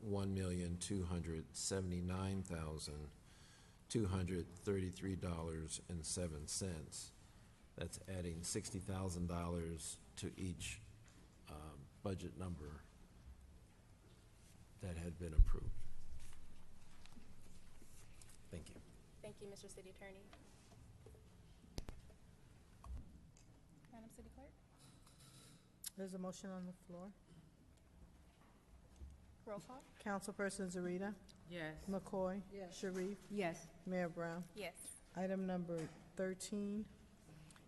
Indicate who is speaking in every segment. Speaker 1: one million, two hundred seventy-nine thousand, two hundred thirty-three dollars and seven cents. That's adding sixty thousand dollars to each, um, budget number that had been approved. Thank you.
Speaker 2: Thank you, Mr. City Attorney. Madam City Clerk?
Speaker 3: There's a motion on the floor.
Speaker 2: Roll call?
Speaker 3: Councilperson Zarita.
Speaker 4: Yes.
Speaker 3: McCoy. Sharif.
Speaker 4: Yes.
Speaker 3: Mayor Brown.
Speaker 2: Yes.
Speaker 3: Item number thirteen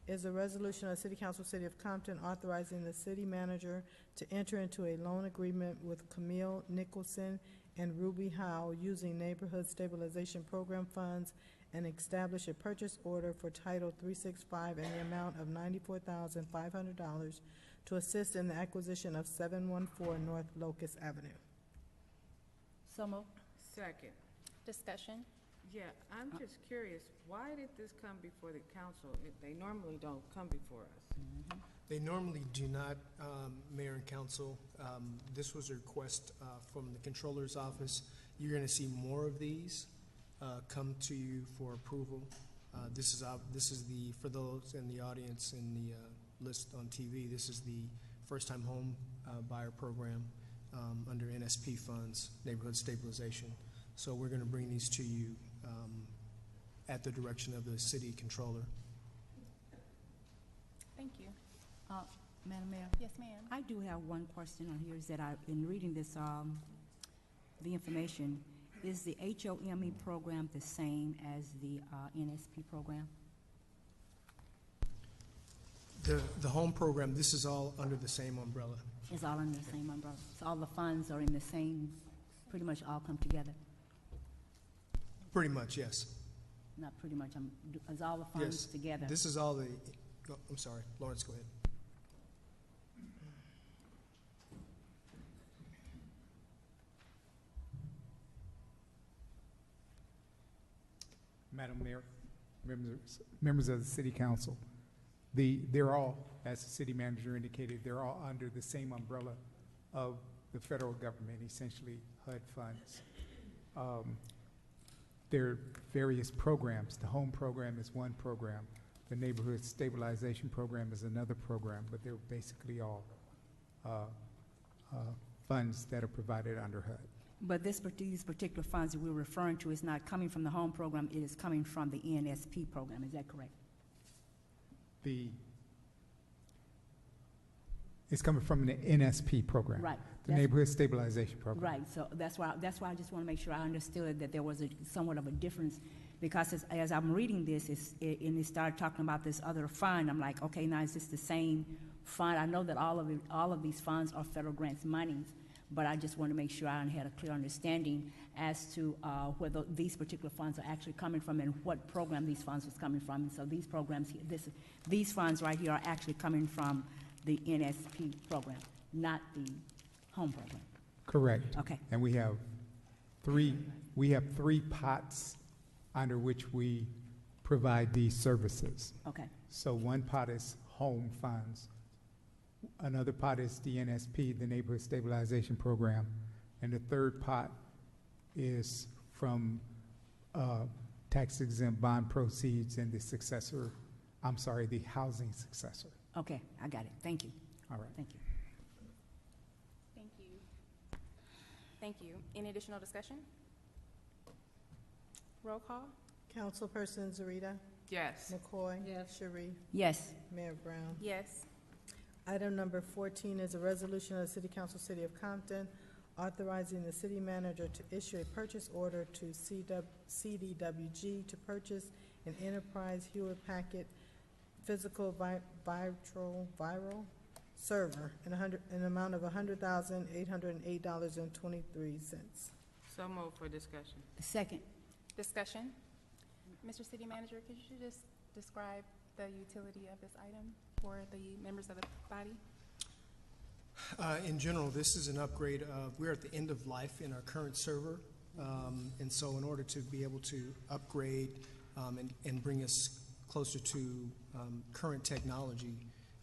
Speaker 3: is a resolution of City Council, City of Compton, authorizing the city manager to enter into a loan agreement with Camille Nicholson and Ruby Howe using Neighborhood Stabilization Program funds and establish a purchase order for Title three-six-five in the amount of ninety-four thousand five hundred dollars to assist in the acquisition of seven-one-four North Locust Avenue.
Speaker 4: So moved. Second.
Speaker 2: Discussion?
Speaker 4: Yeah, I'm just curious, why did this come before the council? It- They normally don't come before us.
Speaker 5: They normally do not, um, Mayor and Council. Um, This was a request uh, from the Controller's Office. You're going to see more of these uh, come to you for approval. Uh, This is, ob- this is the, for those in the audience in the uh, list on TV, this is the first-time home uh, buyer program um, under NSP funds, Neighborhood Stabilization. So we're going to bring these to you um, at the direction of the City Controller.
Speaker 2: Thank you.
Speaker 6: Uh, Madam Mayor,
Speaker 2: Yes, ma'am.
Speaker 6: I do have one question on here, is that I, in reading this, um, the information, is the HOME E program the same as the, uh, NSP program?
Speaker 5: The, the home program, this is all under the same umbrella.
Speaker 6: Is all under the same umbrella? So all the funds are in the same, pretty much all come together?
Speaker 5: Pretty much, yes.
Speaker 6: Not pretty much, um, do- is all the
Speaker 5: Yes.
Speaker 6: funds together?
Speaker 5: This is all the, go- I'm sorry, Lawrence, go ahead.
Speaker 7: Madam Mayor, members, members of the city council, the, they're all, as the city manager indicated, they're all under the same umbrella of the federal government, essentially HUD funds. Um, There are various programs. The home program is one program. The neighborhood stabilization program is another program, but they're basically all, uh, uh, funds that are provided under HUD.
Speaker 6: But this, part- these particular funds that we're referring to is not coming from the home program, it is coming from the NSP program, is that correct?
Speaker 7: the, it's coming from the NSP program.
Speaker 6: Right.
Speaker 7: The
Speaker 6: that's-
Speaker 7: Neighborhood Stabilization Program.
Speaker 6: Right, so that's why, that's why I just want to make sure I understood that there was a somewhat of a difference, because as, as I'm reading this, it's, it- and it started talking about this other fund, I'm like, okay, now is this the same fund? I know that all of, it- all of these funds are federal grants monies, but I just want to make sure I had a clear understanding as to, uh, where tho- these particular funds are actually coming from and what program these funds was coming from. And so these programs, he- this, these funds right here are actually coming from the NSP program, not the home program.
Speaker 7: Correct.
Speaker 6: Okay.
Speaker 7: And we have three, we have three pots under which we provide these services.
Speaker 6: Okay,
Speaker 7: So one pot is home funds. Another pot is the NSP, the Neighborhood Stabilization Program. And the third pot is from uh, tax exempt bond proceeds and the successor, I'm sorry, the housing successor.
Speaker 6: okay, I got it. Thank you,
Speaker 7: All right.
Speaker 6: thank you.
Speaker 2: Thank you. Thank you. Any additional discussion? Roll call?
Speaker 3: Councilperson Zarita.
Speaker 4: Yes.
Speaker 3: McCoy. Sharif.
Speaker 6: Yes,
Speaker 3: Mayor Brown.
Speaker 2: Yes.
Speaker 3: Item number fourteen is a resolution of the City Council, City of Compton, authorizing the city manager to issue a purchase order to CW CDWG to purchase an Enterprise Hewlett Packet physical vi- viral, viral server in a hundred, an amount of hundred thousand, eight hundred and eight dollars and twenty-three cents.
Speaker 4: So moved for discussion.
Speaker 6: second,
Speaker 2: Discussion? Mr. City Manager, could you just describe the utility of this item for the members of the body?
Speaker 5: Uh, In general, this is an upgrade of, we're at the end of life in our current server. um, And so in order to be able to upgrade um, and, and bring us closer to um, current technology,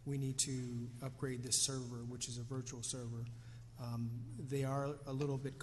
Speaker 5: we need to upgrade this server, which is a virtual server. Um, They are a little bit